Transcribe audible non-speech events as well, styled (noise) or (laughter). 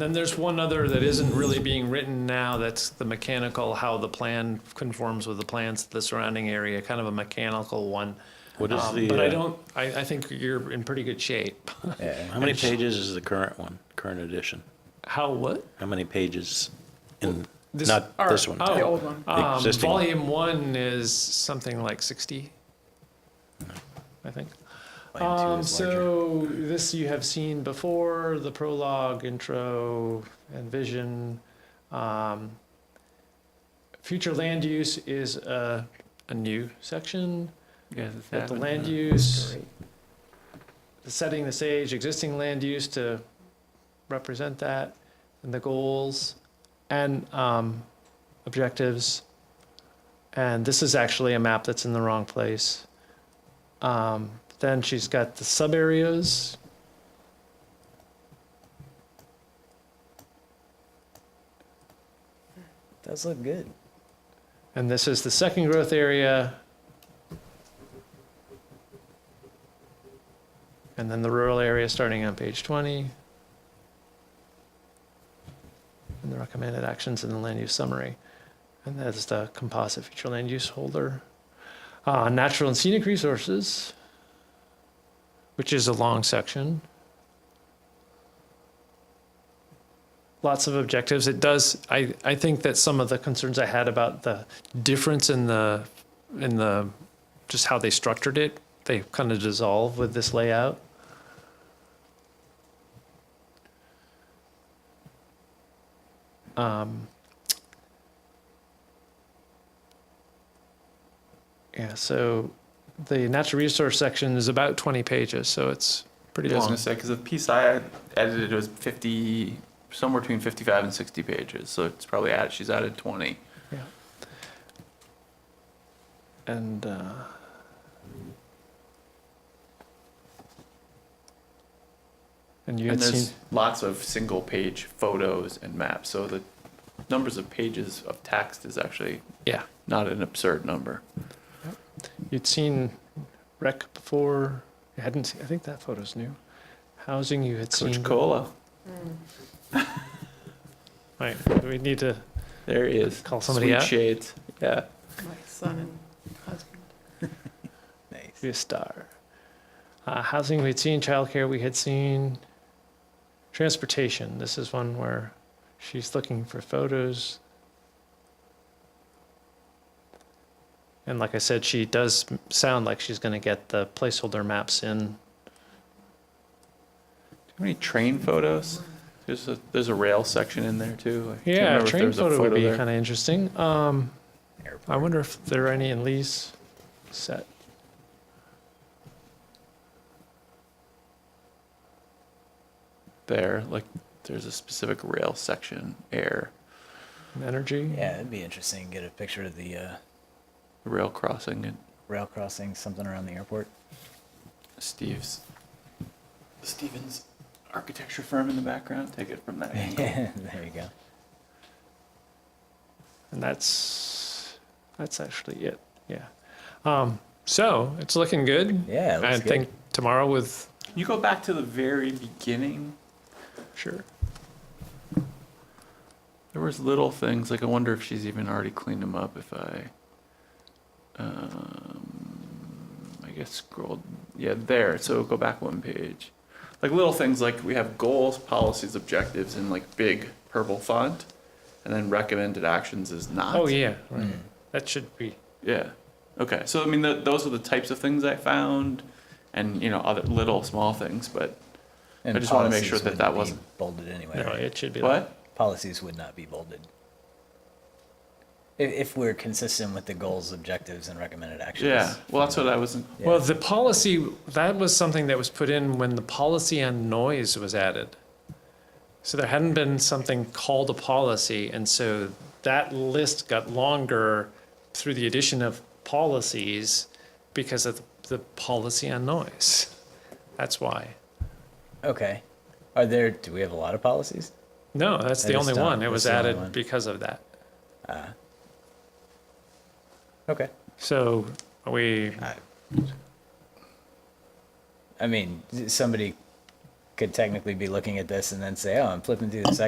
Then there's one other that isn't really being written now, that's the mechanical, how the plan conforms with the plans of the surrounding area, kind of a mechanical one. What is Um, the, But I uh, don't, I, I think you're in pretty good shape. (laughs) How many pages is the current one, current edition? How, what? How many pages in, This- not or- this one? oh, the old one. Um, Existing one. Volume one is something like sixty, I think. Um, so this you have seen before, the prologue, intro, and vision. Um, future land use is a, a new section. Yeah, That the that- land use, the setting the stage, existing land use to represent that, and the goals and um, objectives. And this is actually a map that's in the wrong place. Um, then she's got the sub areas. Does look good. And this is the second growth area. And then the rural area starting on page 20. And the recommended actions in the land use summary. And that is the composite future land use holder. Uh, natural and scenic resources, which is a long section. Lots of objectives. It does, I, I think that some of the concerns I had about the difference in the, in the, just how they structured it, they kind of dissolve with this layout. Um, yeah, so the natural resource section is about 20 pages, so it's pretty Yeah, I was long. gonna say because the piece I edited was fifty, somewhere between fifty-five and sixty pages. So it's probably added. She's added twenty. And uh, and you And had there's seen lots of single-page photos and maps. So the numbers of pages of text is actually Yeah. not an absurd number. you'd seen rec before. You hadn't. Seen, I think that photo's new. Housing you had Coach seen. Cola, Right. We need to. there he is. Call somebody Sweet out? shades. Yeah. My son and husband. be a star. Uh, housing we had seen, childcare we had seen, transportation. This is one where she's looking for photos. And like I said, she does m- sound like she's going to get the placeholder maps in. Do you have any train photos? There's a there's a rail section in there too. I can't Yeah, remember if there train was a photo, would be there. kind of interesting. Um, I wonder if there are any in Lee's set. there. Like there's a specific rail section, air, Energy. Yeah, it'd be interesting to get a picture of the uh, rail crossing, and rail crossing, something around the airport. (laughs) Steve's Stevens architecture firm in the background. Take it from that. angle. there you go. And that's that's actually it. Yeah. Um, so it's looking good. Yeah, it looks I good. think tomorrow with Can you go back to the very beginning. sure. There was little things like I wonder if she's even already cleaned them up. If I, um, I guess scrolled. Yeah, there. So go back one page. Like little things like we have goals, policies, objectives in like big purple font, and then recommended actions is not. Oh yeah, Hmm. right. That should be Yeah. Okay. So I mean, th those are the types of things I found, and you know, other little small things. But And just wanna make sure that policies that wouldn't be wasn't- bolded anyway. no. right? It should be like what? Policies would not be bolded. If, if we're consistent with the goals, objectives, and recommended actions. Yeah. Well, that's what I wasn't. Yeah. Well, the policy that was something that was put in when the policy on noise was added. So there hadn't been something called a policy, and so that list got longer through the addition of policies because of the policy on noise. That's why. Okay. Are there? Do we have a lot of policies? No, that's the That is only done. one. It That's was the only added one. because of that. Okay. So we, I mean, somebody could technically be looking at this and then say, "Oh, I'm flipping through this